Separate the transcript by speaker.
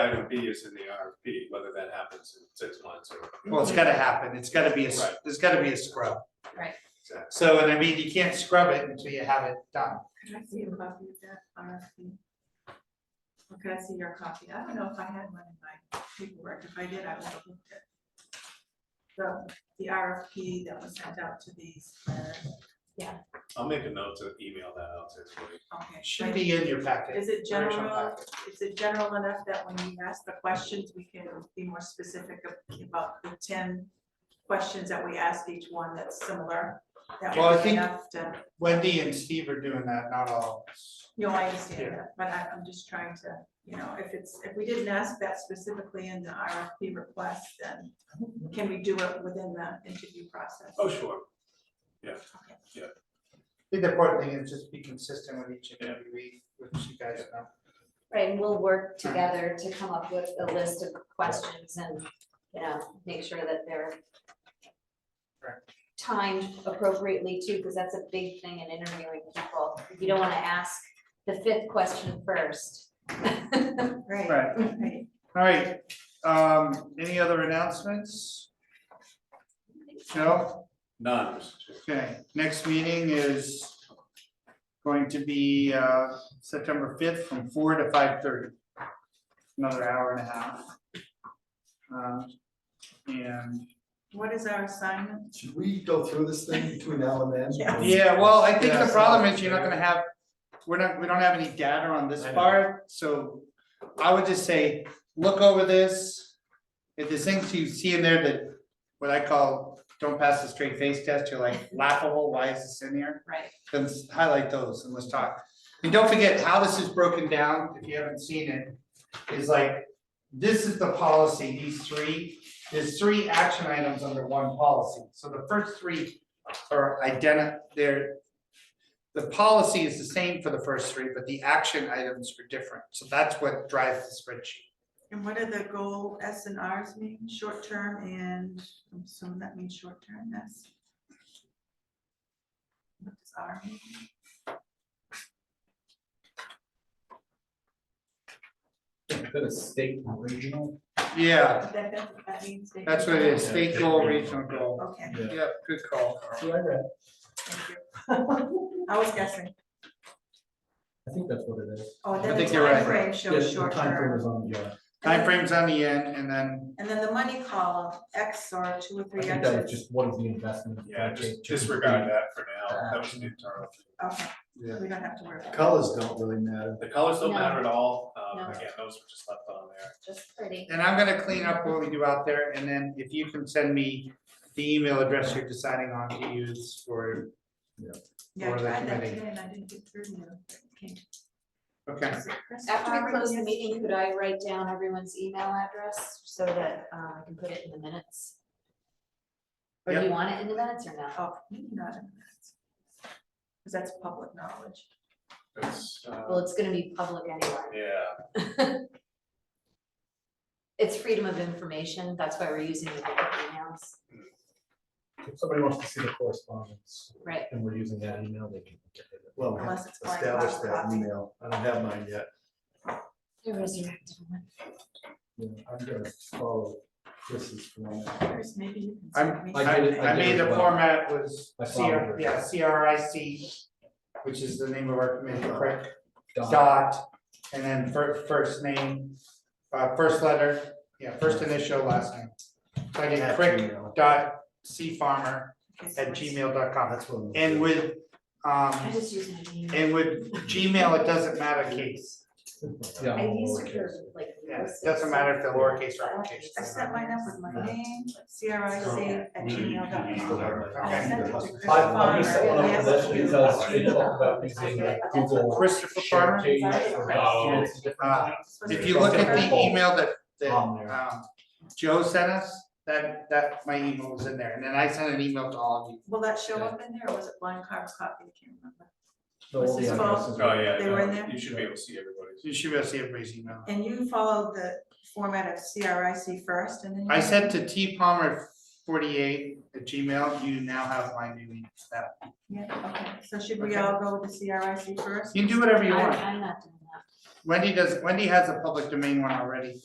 Speaker 1: gonna be is in the RFP, whether that happens in six months or.
Speaker 2: Well, it's gotta happen, it's gotta be, a s-
Speaker 1: Right.
Speaker 2: there's gotta be a scrub.
Speaker 1: exactly.
Speaker 2: So, and I mean, you can't scrub it until you have it done.
Speaker 3: Could I see a copy of that RFP? Or could I see your copy? I don't know if I had one in my paperwork. If I did, I would have looked at. The, the RFP that was sent out to these uh, planners.
Speaker 1: I'll make a note to email that out to everybody.
Speaker 3: Okay.
Speaker 2: It Should be in your packet.
Speaker 3: Is it
Speaker 2: original
Speaker 3: general?
Speaker 2: packet.
Speaker 3: Is it general enough that when we ask the questions, we can be more specific about the ten questions that we ask each one that's similar? That
Speaker 2: Well, I
Speaker 3: would be
Speaker 2: think-
Speaker 3: enough to,
Speaker 2: Wendy and Steve are doing that, not all of us.
Speaker 3: you know, I understand
Speaker 2: Yeah.
Speaker 3: that, but I, I'm just trying to, you know, if it's, if we didn't ask that specifically in the RFP request, then can we do it within the interview process?
Speaker 1: Oh, sure.
Speaker 2: I think the important thing is just be consistent with each and every week, which you guys know.
Speaker 4: Right, and we'll work together to come up with a list of questions and, you know, make sure that they're timed appropriately too, because that's a big thing in interviewing people. You don't want to ask the fifth question first.
Speaker 3: Right.
Speaker 2: Right,
Speaker 3: Right.
Speaker 2: all right, um, any other announcements? No,
Speaker 1: None, Mr. Chair.
Speaker 2: okay, next meeting is going to be uh September fifth from four to five thirty. Another hour and a half. Um, and
Speaker 3: What is our assignment?
Speaker 5: Should we go through this thing between now and then?
Speaker 3: Yeah.
Speaker 2: Yeah, well, I think
Speaker 5: Yeah,
Speaker 2: the
Speaker 5: so-
Speaker 2: problem is you're not gonna have, we're not, we don't have any data on this
Speaker 1: I know.
Speaker 2: part, so I would just say, look over this. If there's things you see in there that, what I call, don't pass the straight face test, you're like laughable, why is this in here?
Speaker 4: Right.
Speaker 2: Then s- highlight those and let's talk. And don't forget how this is broken down, if you haven't seen it, is like, this is the policy, these three, there's three action items under one policy. So the first three are identi- they're, the policy is the same for the first three, but the action items are different. So that's what drives the spreadsheet.
Speaker 3: And what are the goal S and Rs mean, short term and, I'm assuming that means short term, that's. What does R mean?
Speaker 6: Bit of state and regional.
Speaker 2: Yeah,
Speaker 3: That, that, that means. they-
Speaker 2: that's what it is,
Speaker 6: Yeah,
Speaker 2: state
Speaker 6: state
Speaker 2: goal,
Speaker 6: regional.
Speaker 2: regional goal.
Speaker 3: Okay,
Speaker 2: Yeah, good call.
Speaker 5: That's what I read.
Speaker 3: thank you. I was guessing,
Speaker 6: I think that's what it is.
Speaker 3: oh,
Speaker 2: I
Speaker 3: then the
Speaker 2: think you're right.
Speaker 3: timeframe
Speaker 6: Yes,
Speaker 3: shows
Speaker 6: the
Speaker 3: short
Speaker 6: time frame
Speaker 3: term.
Speaker 6: is on, yeah.
Speaker 2: Timeframes on the end and then,
Speaker 3: And then the money column, X or two or
Speaker 6: I
Speaker 3: three
Speaker 6: think that was
Speaker 3: X's.
Speaker 6: just what is the investment.
Speaker 1: Yeah, just disregard that for now. That was an internal. thing.
Speaker 3: Okay,
Speaker 5: Yeah.
Speaker 3: we don't have to worry about it.
Speaker 5: Colors don't really matter.
Speaker 1: The colors don't matter at all.
Speaker 4: No.
Speaker 1: Um, again, those were just left on there.
Speaker 4: Just pretty.
Speaker 2: and I'm gonna clean up what we do out there and then if you can send me the email address you're deciding on to use for,
Speaker 3: Yeah, I
Speaker 2: Or the
Speaker 3: tried that
Speaker 2: committee.
Speaker 3: today and I didn't get through to you. Okay.
Speaker 2: okay.
Speaker 3: Is it Chris
Speaker 4: After we
Speaker 3: Farley?
Speaker 4: close the
Speaker 3: Yes.
Speaker 4: meeting, could I write down everyone's email address so that uh, I can put it in the minutes? Or do you want it in the minutes or no?
Speaker 3: Oh, maybe not in minutes. Cause that's public knowledge.
Speaker 1: It's, uh,
Speaker 4: Well, it's gonna be public anyway.
Speaker 1: yeah.
Speaker 4: It's freedom of information, that's why we're using the public emails,
Speaker 6: If somebody wants to see the correspondence
Speaker 4: right?
Speaker 6: and we're using that email, they can. get it.
Speaker 5: Well, we
Speaker 3: Unless it's blind
Speaker 5: established
Speaker 3: box
Speaker 5: that
Speaker 3: copy.
Speaker 5: email. I don't have mine yet.
Speaker 4: The resurrected one.
Speaker 6: Yeah, I'm gonna
Speaker 5: Oh,
Speaker 6: follow this is from.
Speaker 3: Chris, maybe you can.
Speaker 2: I'm-
Speaker 3: send me
Speaker 6: I
Speaker 2: I
Speaker 6: did it-
Speaker 2: I
Speaker 6: did
Speaker 2: made
Speaker 6: it
Speaker 2: the
Speaker 6: well.
Speaker 2: format was
Speaker 6: I
Speaker 2: C R,
Speaker 6: followed it.
Speaker 2: yeah, C R I C, which is the name of our committee, correct?
Speaker 6: Dot.
Speaker 2: Dot, and then fir- first name, uh, first letter, yeah, first initial, last name. So I get
Speaker 5: At
Speaker 2: crick
Speaker 5: Gmail.
Speaker 2: dot C farmer
Speaker 3: Okay, so
Speaker 2: at
Speaker 3: it's-
Speaker 2: gmail dot com,
Speaker 5: That's what I'm.
Speaker 2: and with,
Speaker 4: I
Speaker 2: um,
Speaker 4: just use my email.
Speaker 2: and with Gmail, it doesn't matter case.
Speaker 6: Yeah.
Speaker 4: I used it for like.
Speaker 2: Yeah, it
Speaker 4: notices.
Speaker 2: doesn't matter if they're lowercase or uppercase.
Speaker 3: I set mine up with my name, C R I C at gmail dot com. I
Speaker 2: Okay.
Speaker 3: sent it to Chris
Speaker 6: I- I'm just
Speaker 3: Farmer
Speaker 6: saying,
Speaker 3: and
Speaker 6: I'm
Speaker 3: asked
Speaker 6: just
Speaker 3: you-
Speaker 6: because they talk about using like Google.
Speaker 2: Christopher
Speaker 6: share
Speaker 2: Farmer?
Speaker 6: page or
Speaker 1: Oh.
Speaker 7: No.
Speaker 6: it's different.
Speaker 2: Uh,
Speaker 3: supposed
Speaker 2: If
Speaker 3: to
Speaker 2: you
Speaker 3: be
Speaker 2: look at
Speaker 3: Christopher.
Speaker 2: the email that, that,
Speaker 6: On there.
Speaker 2: um, Joe sent us, that, that, my email was in there, and then I sent an email to all of you.
Speaker 3: Will that show up in there or was it blind carb's copy? I can't remember.
Speaker 6: The old
Speaker 3: This is
Speaker 6: addresses.
Speaker 1: Oh, yeah,
Speaker 3: They were in
Speaker 1: no,
Speaker 3: there?
Speaker 1: You should be able to see everybody's.
Speaker 2: So You should be able to see everybody's email.
Speaker 3: And you followed the format of C R I C first and then. you-
Speaker 2: I sent to T Palmer forty-eight at Gmail, you now have my new email. That-
Speaker 3: Yeah, okay, so should we
Speaker 2: Okay.
Speaker 3: all go with the C R I C first?
Speaker 2: You can do whatever you
Speaker 4: I-
Speaker 2: want.
Speaker 4: I'm not doing that.
Speaker 2: Wendy does, Wendy has a public domain one already.